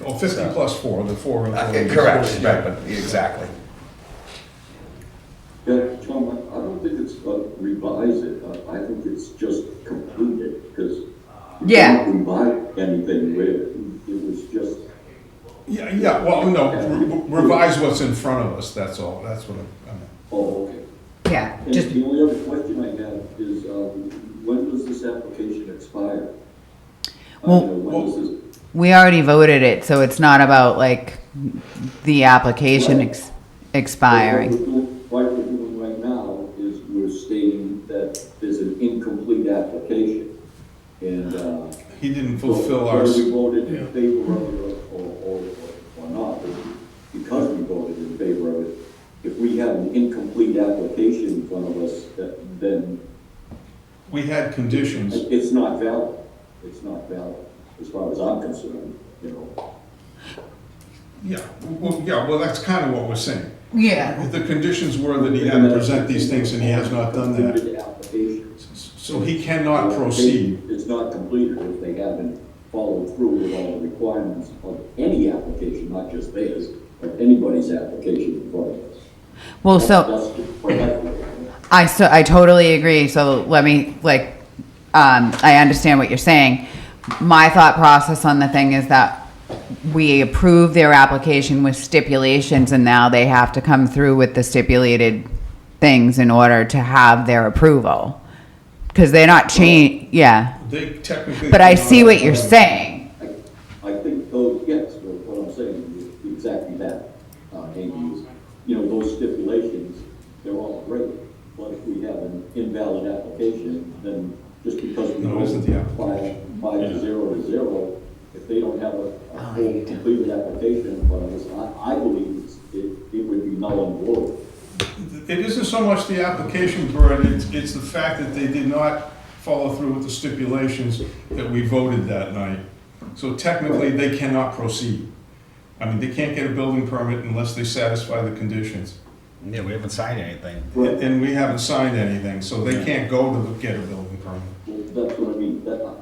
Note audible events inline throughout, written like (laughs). Well, 50 Oh, plus four, the four. Uh, the- Correct, Right. right, but, exactly. Yeah, Tom, I- I don't think it's uh, revise it, I- I think it's just complete it, because Yeah. you didn't revise anything with it, it was just, Yeah, yeah, well, no, re- revise what's in front of us, that's all, that's what I'm- I'm, oh, okay. Yeah, And just, the only other question I have is, um, when does this application expire? I Well- mean, when does this- we already voted it, so it's not about like the application ex- expiring. What we're doing- What we're doing right now is we're stating that there's an incomplete application, and, uh, he didn't fulfill our, Whether we s- voted in favor of it or, or, or not, but because we voted in favor of it, if we have an incomplete application in front of us, that- then we had conditions. it's not valid. It's not valid, as far as I'm concerned, you know. Yeah, well, yeah, well, that's kind of what we're saying. Yeah. The conditions were that he had to present these things and he has not done that. Completed application. So he cannot proceed. It's not completed if they haven't followed through with all the requirements of any application, not just theirs, but anybody's application in front of us. Well, so That's the point I feel. I so I totally agree. So let me like, um, I understand what you're saying. My thought process on the thing is that we approve their application with stipulations, and now they have to come through with the stipulated things in order to have their approval. Because they're not change, yeah. They technically. But I see cannot- what you're saying. I think those, yes, but what I'm saying is exactly that, uh, Andy, is, you know, those stipulations, they're all great, but if we have an invalid application, then just because we No, isn't the go by, by Yeah. zero to zero, if they don't have a, a whole completed application, but I, I believe it's, it, it would be null and void. It isn't so much the application burden, it's, it's the fact that they did not follow through with the stipulations that we voted that night. So technically, they cannot proceed. I mean, they can't get a building permit unless they satisfy the conditions. Yeah, we haven't signed anything. And and we haven't signed anything, so they can't go to get a building permit. Well, That's what I mean, that,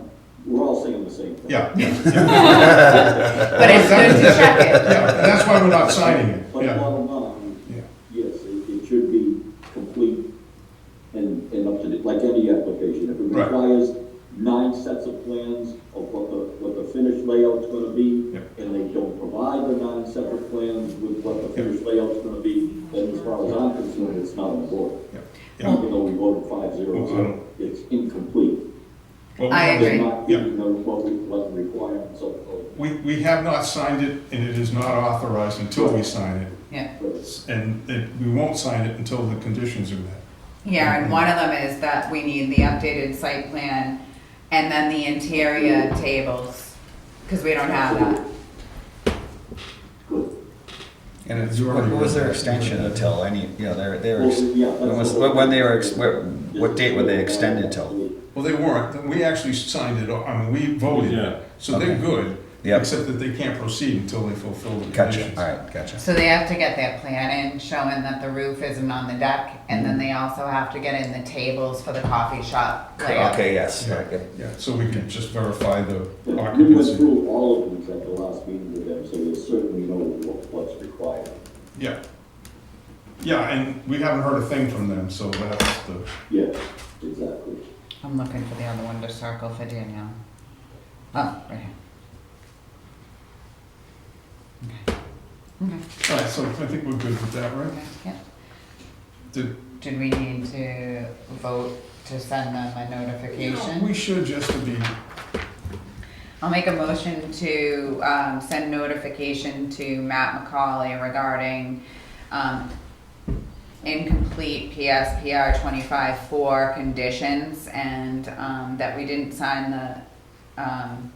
we're all saying the same thing. Yeah, yeah, But it's (laughs) good to check it. yeah, and that's why we're not signing it, But yeah. bottom line, Yeah. yes, it, it should be complete and, and up to date, like any application. If it Right. requires nine sets of plans of what the, what the finished layout's gonna be, Yep. and they don't provide the nine separate plans with what the finished layout's gonna be, then as far as I'm concerned, it's not on board. yeah, yeah. Even though we voted five zero Well, zero, it's incomplete. Well, I we- agree. They're not Yeah. meeting the, what we, what the requirements of, of, We, we have not signed it, and it is not authorized until we sign it. Yeah, And it, we won't sign it until the conditions are met. yeah, and one of them is that we need the updated site plan and then the interior tables, because we don't have that. good. And it's, what what was their extension until any, you know, they're, they were, ex- Well, yeah, that's when was, what- what- when they were, ex- what, what date were they extended till? Well, they weren't, we actually signed it, I mean, we Yeah. voted, so they're Okay. good. Yep. Except that they can't proceed until they fulfill the Gotcha, conditions. all right, gotcha. So they have to get that plan in showing that the roof isn't on the deck, and then they also have to get in the tables for the coffee shop layout. Okay, yes, Yeah, very good. Yeah, so we can just verify the We went occupancy. through all of these at the last meeting with them, so they certainly know what- what's required. Yeah. Yeah, and we haven't heard a thing from them, so that's the, Yeah, exactly. I'm looking for the other one to circle for Danielle. Oh, right here. Okay. Okay, all right, so I think we're good with that, right? okay, yeah. Did- Did we need to vote to send them a notification? We should just to be, I'll make a motion to um, send notification to Matt McCauley regarding um, incomplete PSPR 25-4 conditions and um, that we didn't sign the um,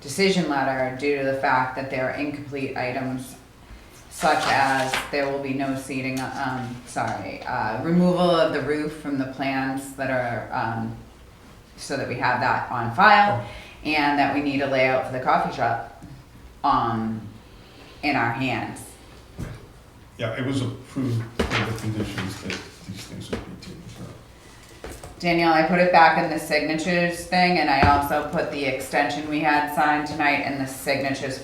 decision letter due to the fact that there are incomplete items such as there will be no seating, um, sorry, uh, removal of the roof from the plans that are, um, so that we have that on file and that we need a layout for the coffee shop, um, in our hands. yeah, it was approved with the conditions that these things would be taken care of. Danielle, I put it back in the signatures thing and I also put the extension we had signed tonight and the signatures